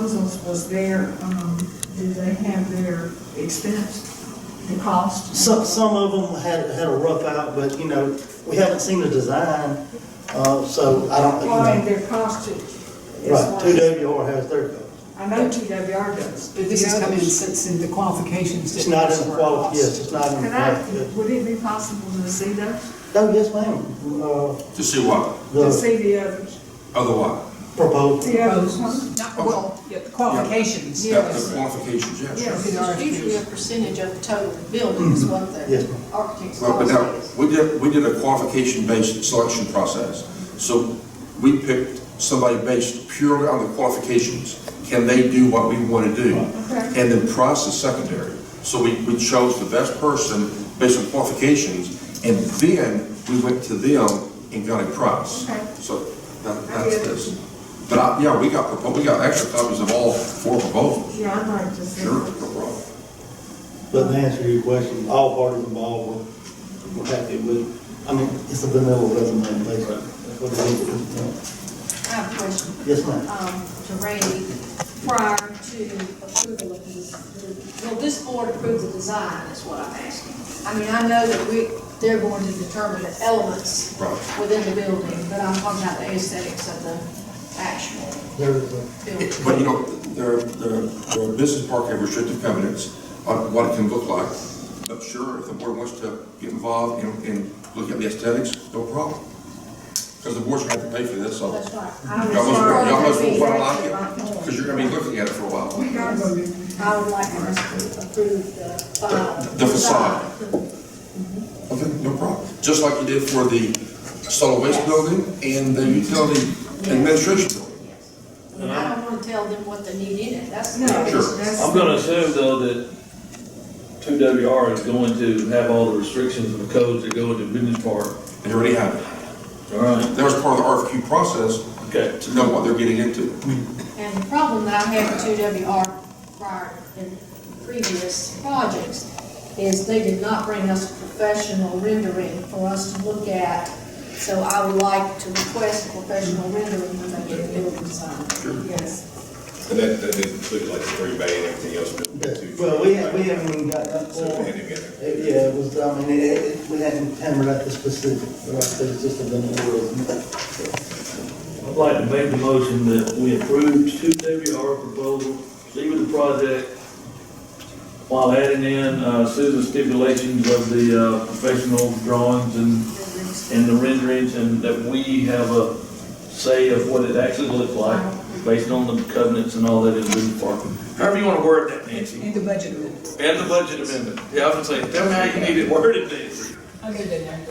does their, um, do they have their expense, the cost? Some, some of them had, had a rough out, but, you know, we haven't seen the design, uh, so I don't, Well, I mean, you their cost is. is know. Right, like- two WR has their cost. I know TWR does. But this is The coming, others- it's in the qualifications. It's that not in these the were quality, lost. yes, it's not in the Can I, quality. would it be possible to see that, No, yes, ma'am, uh, To see what? to the see the others? Other what? proposal, The others, huh? Not, well, yeah, the qualifications. Yeah. Yes. The qualifications, yes. Yeah. It's usually a percentage of the total of the building is what Yes, the ma'am. architect's Well, but cost now, is. we did, we did a qualification-based selection process. So we picked somebody based purely on the qualifications. Can they do what we want to do? Okay. And then price is secondary. So we, we chose the best person based on qualifications, and then we went to them and got a price. Okay. So that, I that's get it. this. But I, yeah, we got, propo- we got extra copies of all four proposals. Yeah, I'd like to see. Sure, no it. problem. but to answer your question, all parties involved were, were happy with, it. I mean, it's a vanilla resume, basically. That's what it is. I have a question, Yes, ma'am. um, to Randy, prior to approval of this, will this board approve the design, is what I'm asking? I mean, I know that we, they're going to determine the elements Right. within the building, but I'm talking about the aesthetics of the actual There is a. building. But you know, there, there, there are business park and restrictive covenants on what it can look like. But sure, if the board wants to get involved and, and look at the aesthetics, no problem. Because the board's gonna have to pay for this, so. That's right. I would Y'all must, prefer y'all must to be wanna like directed by it, them. because you're gonna be looking at it for a while. We got it. I would like us to approve the uh, file. The- the facade. Okay, no problem. Just like you did for the solid waste building and the utility administration building. And I don't want to tell them what they need in it, that's. No, Sure. that's. I'm gonna assume though that two WR is going to have all the restrictions and the codes that go into business park. They already have it. All right. That was part of the RFQ process Okay. to know what they're getting into. And the problem that I had with two W R prior in previous projects is they did not bring us a professional rendering for us to look at. So I would like to request a professional rendering when they get the building signed. Yes. And that, that didn't include like the three bay and everything else, but the two. Well, we, we haven't even got that So we far. had to get it. It- Yeah, it was, I mean, it, it, we hadn't hammered out the specific, but I said it's just a vanilla resume. I'd like to make the motion that we approve two WR proposal, see with the project, while adding in, uh, Susan's stipulations of the, uh, professional drawings and, and the renderings, and that we have a say of what it actually looks like, based on the covenants and all that in business park. However you wanna word that, Nancy. In the budget amendment. And the budget amendment. Yeah, I was gonna say, tell me how you need it worded, Nancy. I'll get it in there.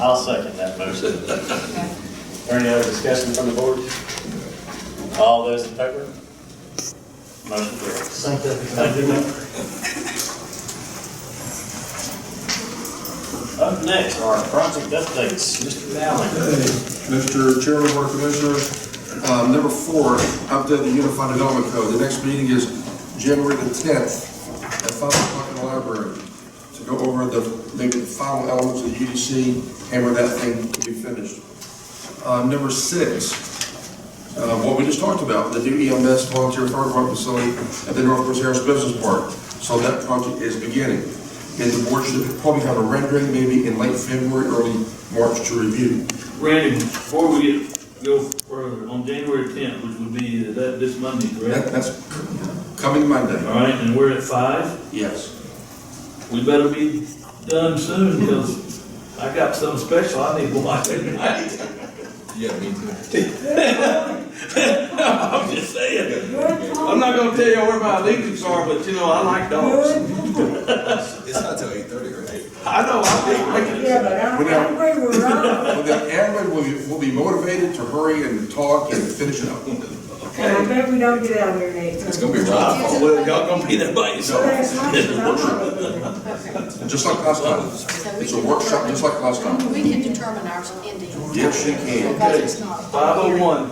I'll second that motion. Any other discussion from the board? All those in favor? Motion carries. Thank you. Thank you, ma'am. Up next are our project updates. Mr. Mallon. Mr. Chairman, Board of Commissioners, um, number four, update the Unified Development Code. The next meeting is January the tenth at five o'clock in the library to go over the, maybe the final elements of the UDC, hammer that thing to be finished. Uh, number six, uh, what we just talked about, the new EMS volunteer fire department facility at the North Business Harris Business Park. So that project is beginning. And the board should probably have a rendering maybe in late February, early March to review. Randy, before we get, go further, on January tenth, which would be that, this Monday, That, correct? that's coming Monday, All right, and we're at five. yes. We better be done soon, because I got something special I need to watch tonight. Yeah, me too. I'm just saying. I'm not gonna tell you where my allegiance are, but you know, I like dogs. It's not till eight thirty, right? I know, I think, Yeah, but I, I agree with Ron. Well, then everyone will be, will be motivated to hurry and talk and finish it up. And I bet we don't get out of there, Nate. It's gonna be rough. Uh, well, y'all gonna be there by yourself. Last night, I don't know. Just like last time, it's a workshop, just like last time. We can determine ours in the. Yes, you can. Because it's not. a Five oh one.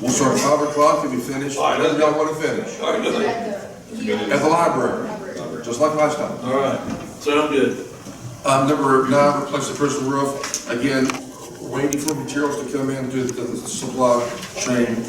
We'll start at five o'clock and be finished, All right. whatever y'all wanna finish, All We right, had the- at the library, Library. just like last time. all right, sound good. Um, number nine, replace the prison roof, again, waiting for materials to come in to the supply chain